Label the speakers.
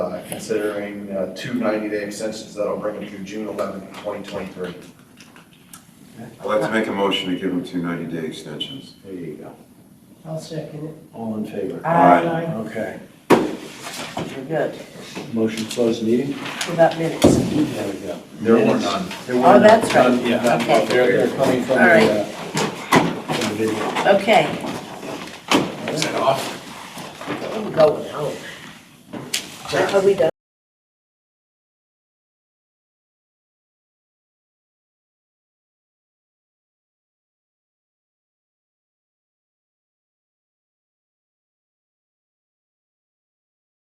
Speaker 1: considering uh, two 90-day extensions that'll bring them through June 11th, 2023.
Speaker 2: I'd like to make a motion to give them two 90-day extensions.
Speaker 3: There you go.
Speaker 4: I'll second it.
Speaker 3: All in favor?
Speaker 2: Aye.
Speaker 3: Okay.
Speaker 4: You're good.
Speaker 3: Motion to close the meeting?
Speaker 4: Without minutes.
Speaker 3: There we go.
Speaker 1: There were
Speaker 3: Minutes.
Speaker 1: none.
Speaker 3: There were
Speaker 4: Oh,
Speaker 3: none.
Speaker 4: that's right.
Speaker 3: None, Yeah, none.
Speaker 4: Okay.
Speaker 3: They're, they're coming from
Speaker 4: All right.
Speaker 3: the, uh, from the video.
Speaker 4: Okay.
Speaker 3: Is
Speaker 4: that off? I'm going home. Are we done?